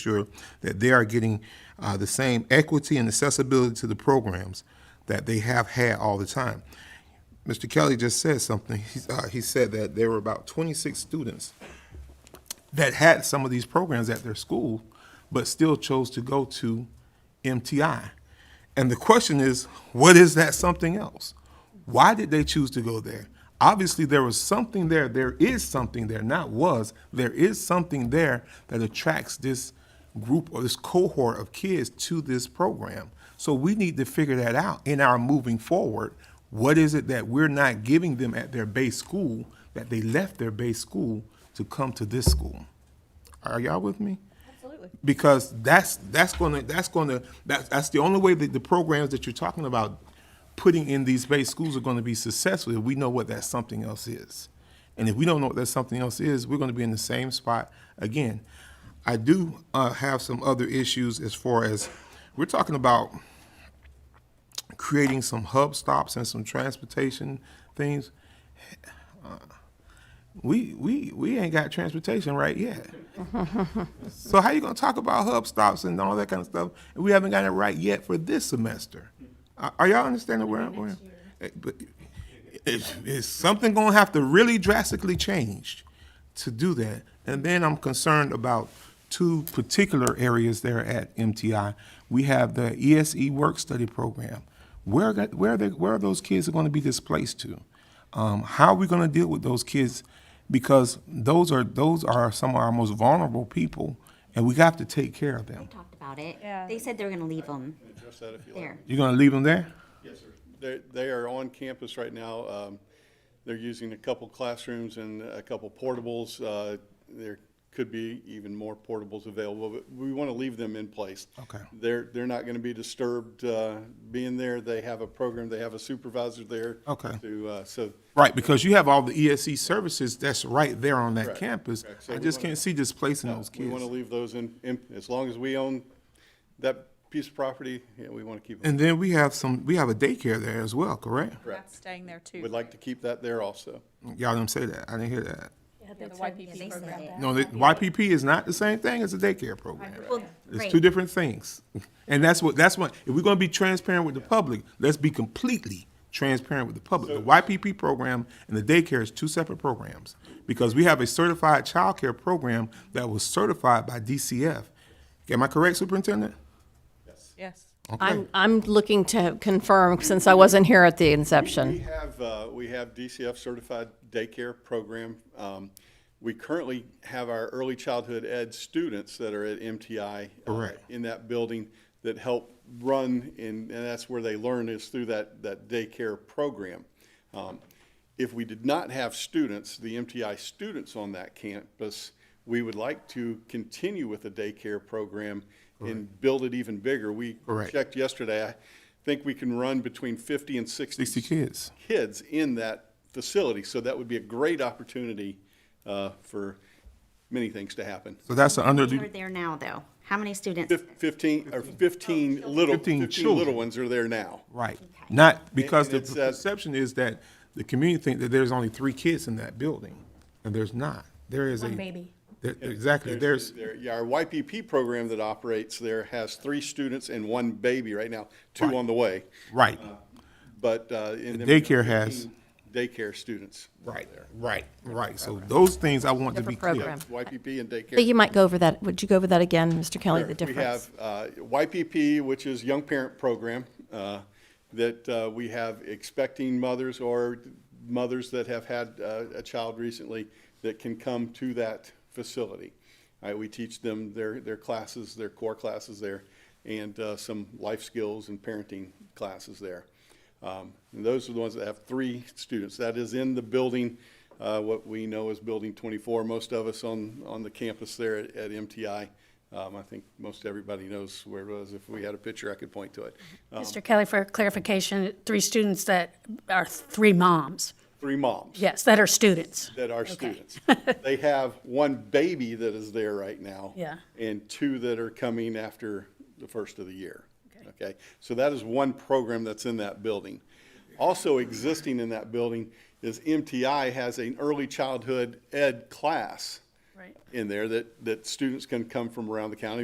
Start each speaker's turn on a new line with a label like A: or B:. A: sure that they are getting uh, the same equity and accessibility to the programs that they have had all the time. Mr. Kelly just said something. He's, uh, he said that there were about 26 students that had some of these programs at their school, but still chose to go to MTI. And the question is, what is that something else? Why did they choose to go there? Obviously, there was something there. There is something there, not was. There is something there that attracts this group or this cohort of kids to this program. So we need to figure that out in our moving forward. What is it that we're not giving them at their base school that they left their base school to come to this school? Are y'all with me?
B: Absolutely.
A: Because that's that's gonna that's gonna that's that's the only way that the programs that you're talking about putting in these base schools are gonna be successful if we know what that something else is. And if we don't know what that something else is, we're gonna be in the same spot again. I do uh, have some other issues as far as we're talking about creating some hub stops and some transportation things. Uh, We we we ain't got transportation right yet. so how you gonna talk about hub stops and all that kind of stuff? And we haven't got it right yet for this semester. Are, are y'all understanding where I'm going? Eh, But is, is something gonna have to really drastically change to do that? And then I'm concerned about two particular areas there at MTI. We have the ESE work study program. Where got, where are they, where are those kids going to be displaced to? Um, how are we going to deal with those kids? Because those are those are some of our most vulnerable people, and we have to take care of them.
C: talked about it.
B: Yeah.
C: They said they were gonna leave them
D: Address that if you like.
C: there.
A: You're going to leave them there?
D: Yes, sir. They, they are on campus right now. Um, They're using a couple classrooms and a couple portables. Uh, There could be even more portables available, but we want to leave them in place.
A: Okay.
D: They're, they're not going to be disturbed uh, being there. They have a program, they have a supervisor there.
A: Okay.
D: To, uh, so
A: Right, because you have all the ESC services that's right there on that
D: Correct,
A: campus.
D: correct. So
A: I
D: we
A: just
D: wanna-
A: can't see displacing those
D: we want to
A: kids.
D: leave those in, in- as long as we own that piece of property, yeah, we want to keep them.
A: And then we have some, we have a daycare there as well, correct?
B: That's staying there too.
D: We'd like to keep that there also.
A: Y'all didn't say that. I didn't hear that.
B: Yeah, the
C: Yeah, they
B: YPP
C: said
B: program.
C: it.
A: No, the YPP is not the same thing as a daycare program.
C: Well,
A: It's
C: great.
A: two different things. And that's what, that's what, if we're gonna be transparent with the public, let's be completely transparent with the public. The YPP program and the daycare is two separate programs. Because we have a certified childcare program that was certified by DCF. Am I correct, Superintendent?
B: Yes.
A: Okay.
E: I'm, I'm looking to confirm, since I wasn't here at the
D: We
E: inception.
D: have, uh, we have DCF certified daycare program. Um, We currently have our early childhood ed students that are at MTI. uh,
A: Correct.
D: In that building that help run and, and that's where they learn is through that, that daycare program. Um, If we did not have students, the MTI students on that campus, we would like to continue with the daycare program and build it even bigger. We
A: Correct.
D: checked yesterday, I think we can run between fifty and sixty
A: Sixty kids.
D: kids in that facility. So that would be a great opportunity uh, for many things to happen.
A: So that's an under,
C: They're there now, though. How many students?
D: Fif- Fifteen, or fifteen little,
A: 15
D: fifteen little
A: children.
D: ones are there now.
A: right, not, because
D: And-
A: the
D: and it's, uh,
A: perception is that the community think that there's only three kids in that building, and there's not. There is a.
B: One baby.
A: There- Exactly, there's,
D: There- yeah, Our YPP program that operates there has three students and one baby right now, two on the way.
A: right,
D: But. uh, and then
A: Daycare has-
D: 15 Daycare students.
A: right, right, right. So those things I want to be
E: Different
A: clear.
E: program.
D: YPP and daycare.
E: I think you might go over that, would you go over that again, Mr. Kelly, the
D: Sure.
E: difference?
D: We have uh, YPP, which is Young Parent Program, uh, that uh, we have expecting mothers or mothers that have had uh, a child recently that can come to that facility. All right, we teach them their, their classes, their core classes there, and uh, some life skills and parenting classes there. Um, And those are the ones that have three students. That is in the building, uh, what we know as Building 24. Most of us on, on the campus there at at MTI. Um, I think most everybody knows where it was. If we had a picture, I could point to it. Uh,
F: Mr. Kelly, for clarification, three students that are three moms,
D: Three moms
F: yes, that are students.
D: that are students. They have one baby that is there right now.
F: Yeah.
D: And two that are coming after the first of the year. Okay, so that is one program that's in that building. Also existing in that building is MTI has an early childhood ed class
F: Right.
D: in there that, that students can come from around the county.